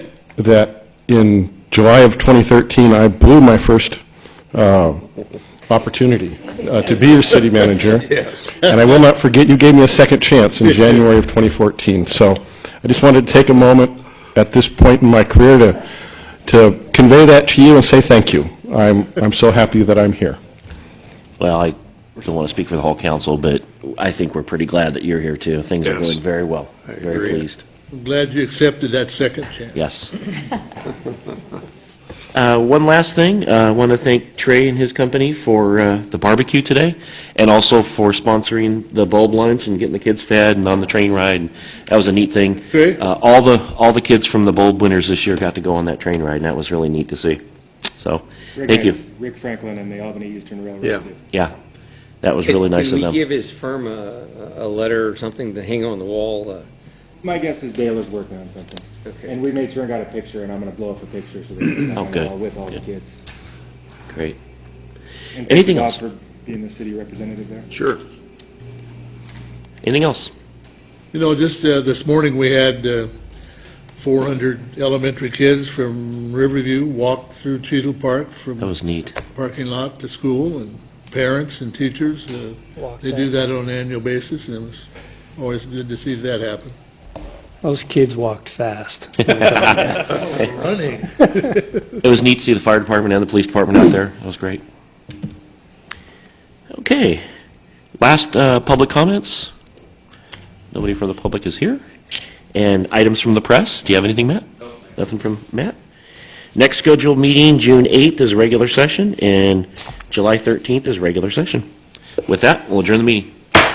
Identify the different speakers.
Speaker 1: that in July of 2013, I blew my first uh, opportunity uh, to be your city manager.
Speaker 2: Yes.
Speaker 1: And I will not forget, you gave me a second chance in January of 2014. So I just wanted to take a moment at this point in my career to, to convey that to you and say thank you. I'm, I'm so happy that I'm here.
Speaker 3: Well, I don't want to speak for the whole council, but I think we're pretty glad that you're here too. Things are
Speaker 2: Yes.
Speaker 3: going very well. Very
Speaker 2: agree.
Speaker 3: pleased.
Speaker 2: I'm glad you accepted that second chance.
Speaker 3: Yes. Uh, One last thing, Uh, I want to thank Trey and his company for uh, the barbecue today, and also for sponsoring the bulb lunch and getting the kids fed and on the train ride. That was a neat thing.
Speaker 2: Okay.
Speaker 3: Uh, All the, all the kids from the bulb winners this year got to go on that train ride, and that was really neat to see. So,
Speaker 4: Rick
Speaker 3: thank you.
Speaker 4: has Rick Franklin and the Albany Eastern Railroad.
Speaker 2: Yeah.
Speaker 4: do.
Speaker 3: Yeah, that was really
Speaker 5: Can-
Speaker 3: nice of
Speaker 5: Can
Speaker 3: them.
Speaker 5: we give his firm a, a letter or something to hang on the wall? uh,
Speaker 4: My guess is Dale is working on something.
Speaker 5: Okay.
Speaker 4: And we made sure and got a picture, and I'm going to blow up a picture so that it's not
Speaker 3: Oh,
Speaker 4: on the
Speaker 3: good.
Speaker 4: wall with all the
Speaker 3: Good.
Speaker 4: kids.
Speaker 3: Great.
Speaker 4: And thank
Speaker 3: Anything
Speaker 4: you, Bob,
Speaker 3: else?
Speaker 4: for being the city representative there.
Speaker 2: Sure.
Speaker 3: Anything else?
Speaker 2: You know, just uh, this morning, we had uh, 400 elementary kids from Riverview walk through Cheadle Park
Speaker 3: That
Speaker 2: from
Speaker 3: was neat.
Speaker 2: parking lot to school, and parents and teachers, uh, they do that on an annual basis, and it was always good to see that happen.
Speaker 6: Those kids walked fast.
Speaker 2: Running.
Speaker 3: It was neat to see the fire department and the police department out there. That was great. Okay. Last uh, public comments. Nobody from the public is here. And items from the press. Do you have anything, Matt? Nothing from Matt? Next scheduled meeting, June 8th is regular session, and July 13th is regular session. With that, we'll adjourn the meeting.